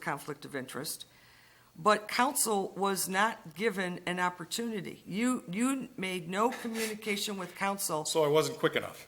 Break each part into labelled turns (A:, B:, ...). A: conflict of interest, but council was not given an opportunity. You, you made no communication with council.
B: So I wasn't quick enough.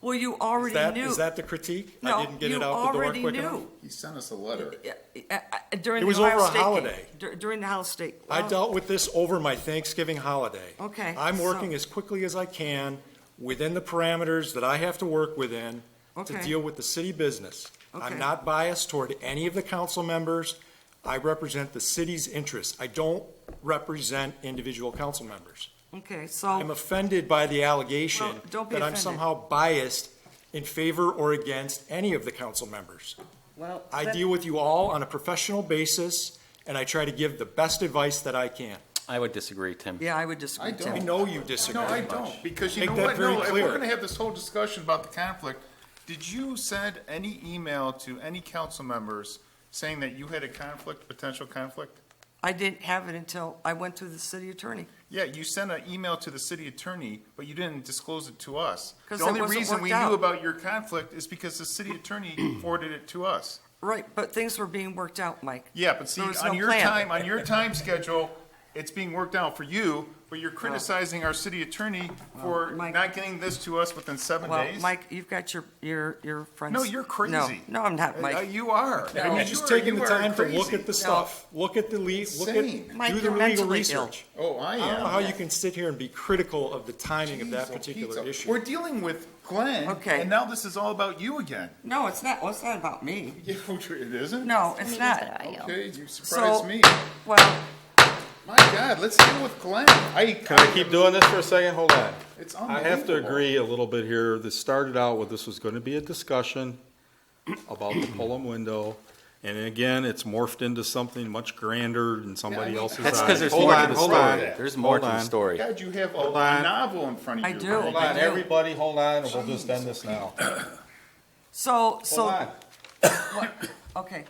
A: Well, you
B: Is
A: already
B: that,
A: knew.
B: is that the critique?
A: No,
B: I didn't get
A: you
B: it out the door
A: already
B: quick
A: knew.
B: enough?
C: He sent us a letter.
A: Uh, uh, uh, During
B: It
A: the
B: was
A: Ohio
B: over a
A: State game.
B: holiday.
A: Dur- During the Ohio State.
B: I
A: Well,
B: dealt with this over my Thanksgiving holiday.
A: Okay,
B: I'm
A: so-
B: working as quickly as I can within the parameters that I have to work within to
A: Okay.
B: deal with the city business.
A: Okay.
B: I'm not biased toward any of the council members. I represent the city's interests. I don't represent individual council members.
A: Okay,
B: I'm
A: so,
B: offended by the allegation
A: Well, don't be
B: that I'm
A: offended.
B: somehow biased in favor or against any of the council members.
A: well.
B: I
A: that-
B: deal with you all on a professional basis, and I try to give the best advice that I can.
D: I would disagree, Tim.
A: Yeah, I would disagree,
C: I
A: Tim.
C: don't.
B: I know you disagree.
C: No, I don't, because you
B: Make
C: know
B: that
C: what,
B: very
C: no, if
B: clear.
C: we're gonna have this whole discussion about the conflict, did you send any email to any council members saying that you had a conflict, potential conflict?
A: I didn't have it until I went through the city attorney.
C: Yeah, you sent an email to the city attorney, but you didn't disclose it to us.
A: 'Cause
C: The
A: it
C: only
A: wasn't
C: reason we
A: worked out.
C: knew about your conflict is because the city attorney forwarded it to us.
A: Right, but things were being worked out, Mike.
C: Yeah, but see,
A: There was
C: on
A: no
C: your
A: plan.
C: time, on your time schedule, it's being worked out for you, but you're criticizing our city attorney for
A: Mike-
C: not getting this to us within seven
A: Well,
C: days?
A: Mike, you've got your, your, your friends.
C: No, you're crazy.
A: No, no, I'm not,
C: Uh,
A: Mike.
C: You are.
B: Have you just taken the time to look at the stuff, look at the le, look
C: Insane.
B: at,
A: Mike,
B: do the
A: you're
B: legal
A: mentally
B: research?
C: Oh, I
B: I
C: am.
B: don't know how you can sit here and be critical of the timing of that
C: Jeez, oh,
B: particular
C: pizza.
B: issue.
C: We're dealing with Glenn.
A: Okay.
C: And now this is all about you again.
A: No, it's not, well, it's not about me.
C: Yeah, It isn't?
A: No, it's not.
C: Okay, you
A: So,
C: surprised me.
A: well,
C: My God, let's deal with Glenn. I.
E: Can I keep doing this for a second? Hold on.
C: It's
E: I have to
C: unbelievable.
E: agree a little bit here. This started out with this was going to be a discussion about the Pullum window. And then again, it's morphed into something much grander than somebody
C: Yeah, I-
E: else's.
D: That's
E: eyes.
D: because there's
E: Hold
D: more
E: on,
D: to the
E: hold on.
D: story. There's more to
E: Hold
D: the
E: on.
D: story.
C: God, you have a
E: Hold on.
C: novel in front of
A: I
C: you.
A: do.
C: Glenn.
E: Hold on, everybody, hold on, and we'll just end this now.
A: so,
E: Hold
A: so,
E: on.
A: okay,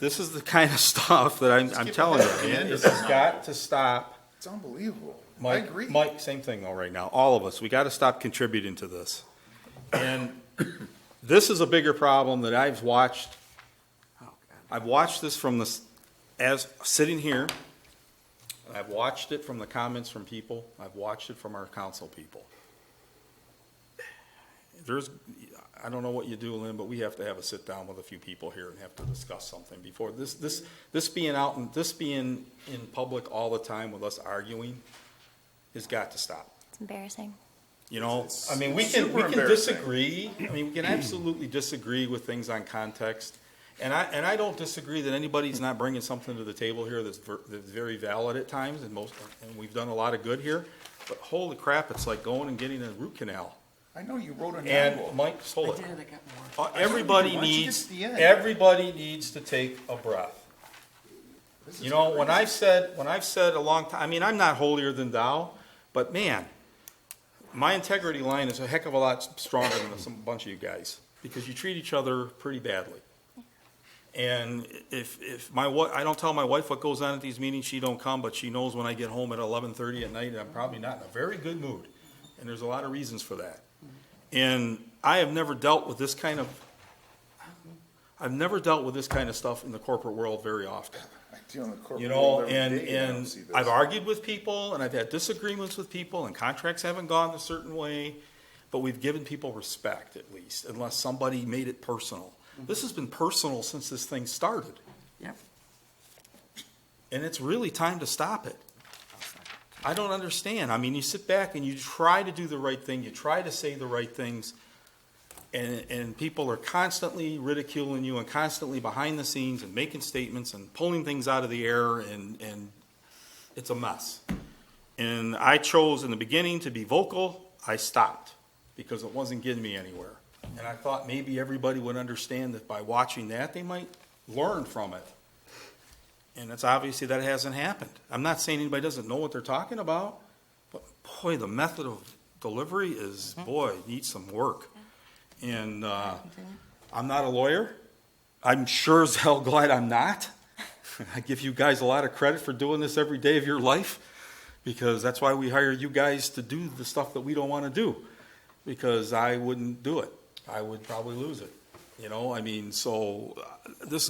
E: This is the kind of stuff that I'm, I'm
C: keep it
E: telling you,
C: moving.
E: man. This has got to stop.
C: It's unbelievable. I
E: Mike,
C: agree.
E: Mike, same thing though right now. All of us, we got to stop contributing to this. And this is a bigger problem that I've watched. I've watched this from this, as sitting here. and I've watched it from the comments from people. I've watched it from our council people. There's, I don't know what you do, Lynn, but we have to have a sit down with a few people here and have to discuss something before this, this, this being out and this being in public all the time with us arguing has got to stop.
F: It's embarrassing.
E: You know, I mean, we
C: it's
E: can,
C: super
E: we can
C: embarrassing.
E: disagree, I mean, we can absolutely disagree with things on context. And I, and I don't disagree that anybody's not bringing something to the table here that's, ver- that's very valid at times and most, and we've done a lot of good here. But holy crap, it's like going and getting a root canal.
C: I know you wrote a
E: And
C: novel.
E: Mike,
A: I
E: hold
A: did,
E: it.
A: I got more.
E: Uh,
C: Why
E: Everybody
C: don't you get
E: needs,
C: to the end?
E: everybody needs to take a breath.
C: This
E: You
C: is
E: know, when
C: crazy.
E: I've said, when I've said a long time, I mean, I'm not holier than thou, but man, my integrity line is a heck of a lot stronger than some bunch of you guys, because you treat each other pretty badly. And if, if my wa, I don't tell my wife what goes on at these meetings, she don't come, but she knows when I get home at eleven-thirty at night, I'm probably not in a very good mood. And there's a lot of reasons for that. And I have never dealt with this kind of, I've never dealt with this kind of stuff in the corporate world very often.
C: I deal in the corporate
E: You know,
C: world every
E: and,
C: day, I don't
E: and
C: see this.
E: I've argued with people and I've had disagreements with people and contracts haven't gone a certain way, but we've given people respect at least, unless somebody made it personal. This has been personal since this thing started,
A: Yep.
E: and it's really time to stop it. I don't understand. I mean, you sit back and you try to do the right thing, you try to say the right things, and, and people are constantly ridiculing you and constantly behind the scenes and making statements and pulling things out of the air, and, and it's a mess. And I chose in the beginning to be vocal. I stopped because it wasn't getting me anywhere. And I thought maybe everybody would understand that by watching that, they might learn from it. And it's obviously that hasn't happened. I'm not saying anybody doesn't know what they're talking about, but boy, the method of delivery is, boy, needs some work. And uh, I'm not a lawyer. I'm sure as hell glad I'm not. I give you guys a lot of credit for doing this every day of your life because that's why we hire you guys to do the stuff that we don't want to do because I wouldn't do it. I would probably lose it. You know, I mean, so uh, this